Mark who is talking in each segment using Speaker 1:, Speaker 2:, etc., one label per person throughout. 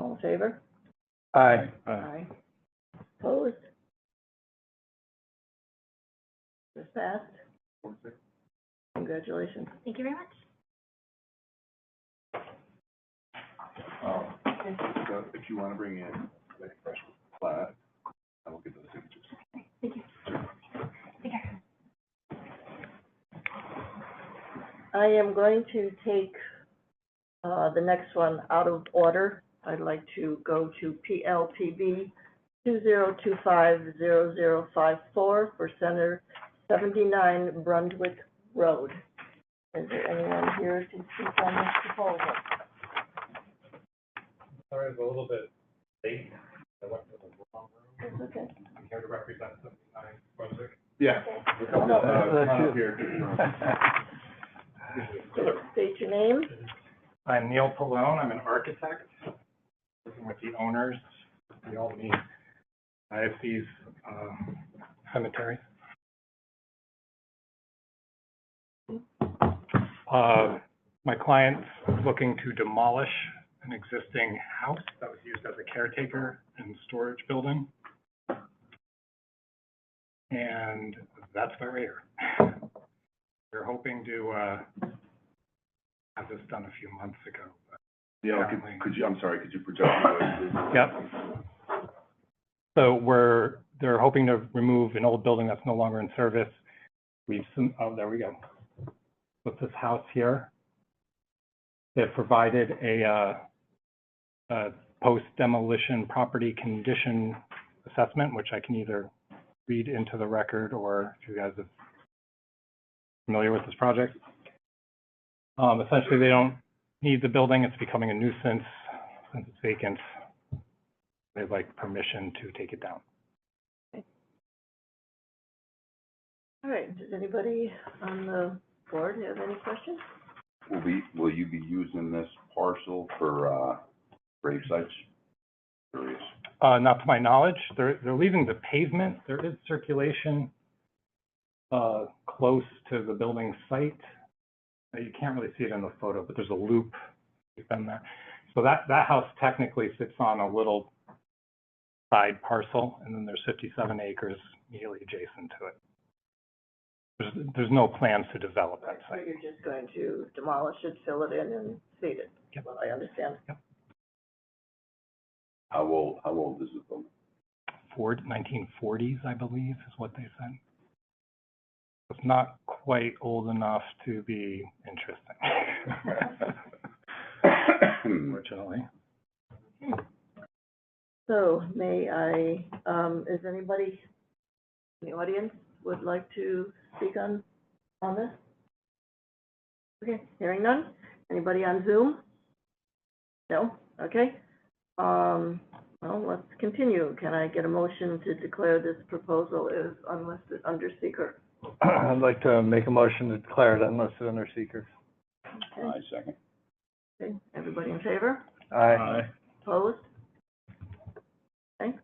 Speaker 1: All in favor?
Speaker 2: Aye.
Speaker 1: Aye. Opposed? This passed. Congratulations.
Speaker 3: Thank you very much.
Speaker 4: Um, so if you want to bring in like a fresh flag, I will get those signatures.
Speaker 1: I am going to take uh, the next one out of order. I'd like to go to PLPB 2025-0054 for Center 79 Brunswick Road. Is there anyone here to speak on this proposal?
Speaker 5: Sorry, it's a little bit late. I went to the wrong room.
Speaker 1: It's okay.
Speaker 5: I'm here to represent seventy-nine Brunswick.
Speaker 4: Yeah. we'll come up, uh, come up here.
Speaker 1: State your name.
Speaker 5: I'm Neil Pallone. I'm an architect, working with the owners, the Albany IFC's, um, cemetery. Uh, my client's looking to demolish an existing house that was used as a caretaker and storage building. And that's why we're here. We're hoping to, uh, have this done a few months ago, but
Speaker 4: Yeah, could, could you, I'm sorry, could you project? your voice,
Speaker 5: Yep. So we're, they're hoping to remove an old building that's no longer in service. We've, sum- oh, there we go. With this house here, they've provided a, uh, a post demolition property condition assessment, which I can either read into the record or if you guys are familiar with this project. Um, essentially, they don't need the building. It's becoming a nuisance since it's vacant they'd like permission to take it down.
Speaker 1: All right, does anybody on the board have any questions?
Speaker 4: please? Will be, will you be using this parcel for, uh, grave sites? Curious.
Speaker 5: Uh, not to my knowledge, they're, they're leaving the pavement, there is circulation, uh, close to the building site. Uh, You can't really see it in the photo, but there's a loop, you've been there. So that, that house technically sits on a little side parcel, and then there's fifty-seven acres immediately adjacent to it. There's, there's no plans to develop that
Speaker 1: So
Speaker 5: site.
Speaker 1: you're just going to demolish it, fill it in, and feed it?
Speaker 5: Yep.
Speaker 1: Well, I understand.
Speaker 4: How old, how old is the building?
Speaker 5: Ford, nineteen forties, I believe, is what they said. It's not quite old enough to be interesting, unfortunately.
Speaker 1: So may I, um, is anybody in the audience would like to speak on, on this? Okay, hearing none. Anybody on Zoom? No? Okay. Um, well, let's continue. Can I get a motion to declare this proposal is unlisted under seeker?
Speaker 2: I'd like to make a motion to declare it unlisted under seeker.
Speaker 4: I second.
Speaker 1: Okay, everybody in favor?
Speaker 2: Aye.
Speaker 1: Opposed? Okay.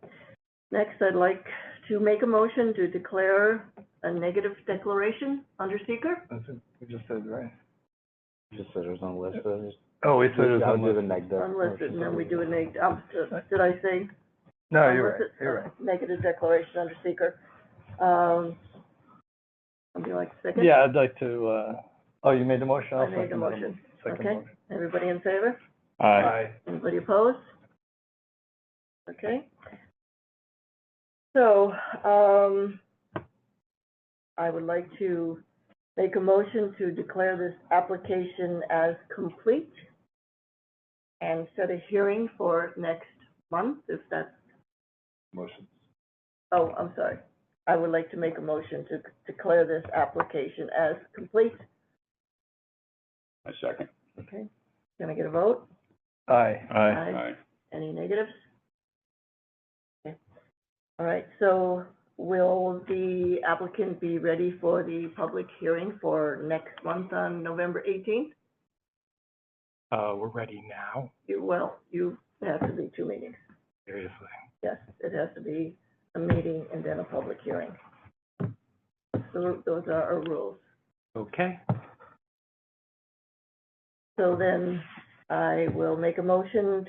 Speaker 1: Next, I'd like to make a motion to declare a negative declaration under seeker.
Speaker 2: That's it, we just said, right?
Speaker 6: Just said it was unlisted.
Speaker 2: Oh, we said it was
Speaker 6: I'll do the
Speaker 2: unlisted.
Speaker 6: neg deck.
Speaker 1: Unlisted, and then we do a neg, um, did I say?
Speaker 2: No, you're right,
Speaker 1: unlisted-
Speaker 2: you're right.
Speaker 1: Negative declaration under seeker. Um, would you like a second?
Speaker 2: Yeah, I'd like to, uh, oh, you made the motion,
Speaker 1: I
Speaker 2: I'll
Speaker 1: made the
Speaker 2: second that.
Speaker 1: motion.
Speaker 2: Second
Speaker 1: Okay.
Speaker 2: motion.
Speaker 1: Everybody in favor?
Speaker 2: Aye.
Speaker 1: Anybody opposed? Okay. So, um, I would like to make a motion to declare this application as complete and set a hearing for next month, if that's,
Speaker 4: Motion.
Speaker 1: oh, I'm sorry. I would like to make a motion to declare this application as complete.
Speaker 4: I second.
Speaker 1: Okay. Can I get a vote?
Speaker 2: Aye.
Speaker 1: Aye. Any negatives? Okay. All right, so will the applicant be ready for the public hearing for next month on November eighteenth?
Speaker 5: Uh, we're ready now,
Speaker 1: You will, you, it has to be two meetings.
Speaker 5: seriously.
Speaker 1: Yes, it has to be a meeting and then a public hearing. Those those are our rules.
Speaker 5: Okay,
Speaker 1: So then I will make a motion